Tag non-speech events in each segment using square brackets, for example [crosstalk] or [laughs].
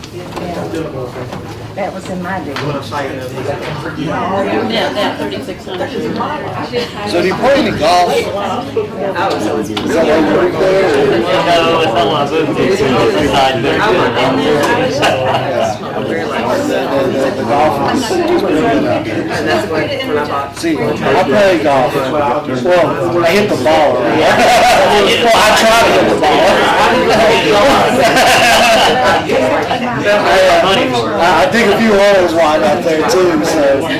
Yeah, That was in my day. Now, now thirty-six hundred. So do you play any golf? Is that why you work there? or- No, it's not one of those things, it's inside there. Yeah. The- the- the- the golf is is pretty good out there. That's what, when I bought. See, I play golf. Well, I hit the ball. [laughs] right? Well, I try to hit the ball. [laughs] I, uh, I- I think a few holes wide out there too, so.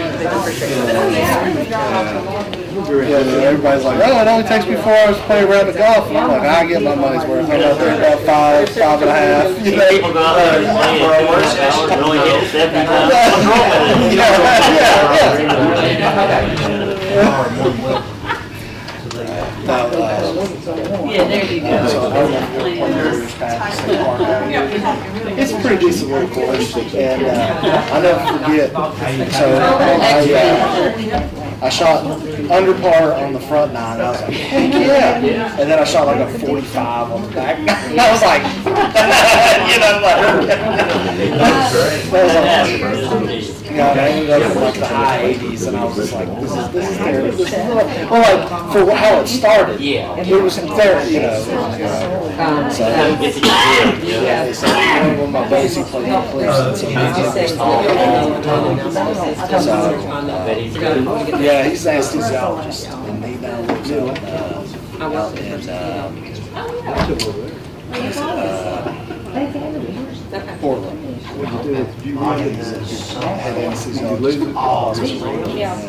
Yeah, and everybody's like, oh, it only takes me four hours to play a round of golf. And I'm like, I get my money's worth. I'm out there about five, five and a half. uh, You know? People go out there and play it for an hour, and only hit it seventy times. What's wrong with it? [laughs] Yeah, [laughs] No, uh, Yeah, there you so go. I went to Warriors Pass and Park Avenue. It's a pretty decent little course, and uh, I never forget. So I, uh, I shot under par on the front nine. I was like, heck yeah! And then I shot like a 45 on the back. I was like, [laughs] you know, like [laughs] that was like, Yeah, I ended up in like the high eighties, and I was just like, this is, this is terrible. This is not- well, like, for how it started. Yeah. It was in therapy, you know. So, It's a good deal, yeah. yeah, they said, you know, when my buddies, he played, he played since he was But he's good. young. Yeah, he's an anesthesiologist, and he now lives in, uh, out in, um, Portland. Had anesthesiologist. Yeah.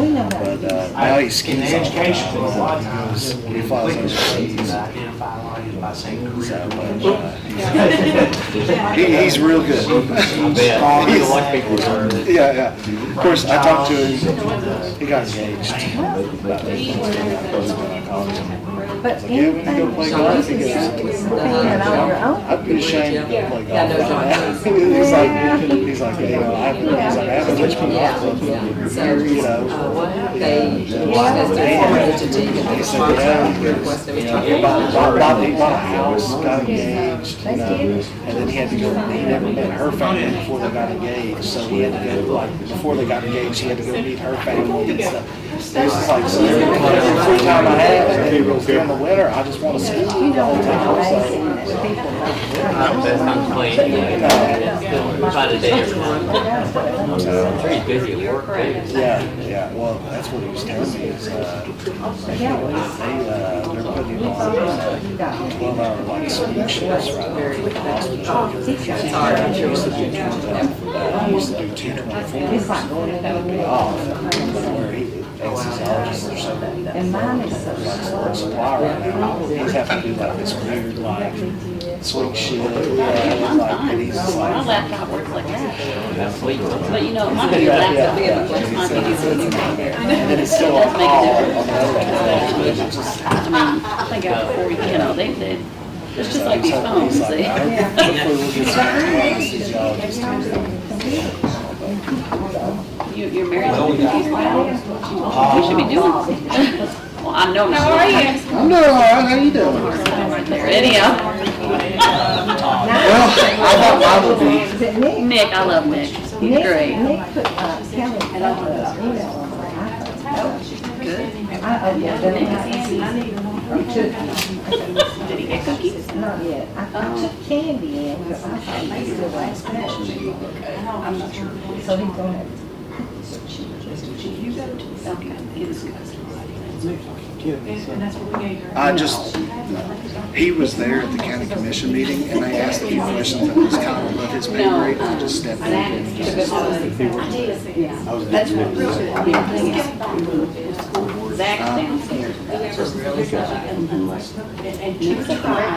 We know that. But, uh, now he skis all the time. He flies overseas. uh, He, he's real good. [laughs] Yeah, He's- like people yeah, yeah. Of course, I talked to him. He got engaged. About eighteen months ago, when I called him. I was like, yeah, we need to go play golf. He goes, Being on your own. I'd be ashamed to play golf. [laughs] He's like, he's like, you know, I, he's like, I haven't touched my golf club. You're, you know. He said, yeah, he goes, you know, he bought, bought, bought, he bought a house, got engaged, you know, and then he had to go, he never met her family before they got engaged, so he had to go, like, before they got engaged, he had to go meet her family and stuff. So He was just like, so the free time I have, and then during the winter, I just wanna ski all the time, so. I'm playing, yeah. Try to date everyone. Pretty busy at work, too. Yeah, yeah, well, that's what he was telling me is, uh, they, uh, they're putting him on uh, twelve hour like sleep shifts right now for the hospital. He used to do two, uh, he used to do two twenty-fours. That would be off, but where he, anesthesiologists or something, And mine is so like slow. sports supply right now, he's having to do like this weird like swing shift, uh, like, and he's just My like, laptop works like that, That's sweet. but you know, my new laptop, we have a place, my videos when you make and there. then it's still on call on the other end. It's just- I mean, I think I, before, you know, they, they, it's just like these phones, eh? He's like, they. "I hope- hopefully we'll get some anesthesiologist to do You, you're married to these people. We should be doing this. Well, I know. How are it." I'm doing all right, how you doing? Right there, anyhow. Well, I thought mine would be, Is it Nick? Nick, I love Nick. He's Nick, great. Nick put, uh, Kelly, put an email on my iPhone. I, oh, yeah, then I, Did he get cookies? not yet. I, Oh. I took candy in, because I thought maybe the last question. So he's gonna have Okay, he was good. I just, he was there at the county commission meeting and they asked a few questions that was kind of above his pay grade. I just stepped in and just Zach downstairs. Nick's a great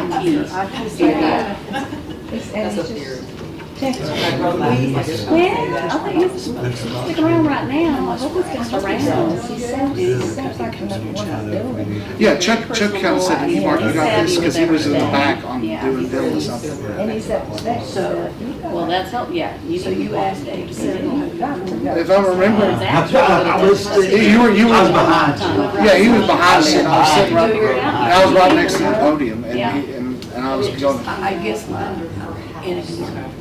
teacher. It's, and it's just. Well, I think he's sticking around right now. I hope he's just around. He sounds, he sounds like another one I'm doing. Yeah, Chuck, Chuck kind of said, hey, Mark, you got this, because he was in the back on doing bill or something. And he said, that's, uh, you Well, that's help, yeah. You, you asked Dave to sit in. got to go. If I remember, [laughs] Zach. you were, you were, yeah, he was behind me, and I was sitting right, Figure it out. and I was right next to the podium, and he, and, and I was going, I guess mine, and it's.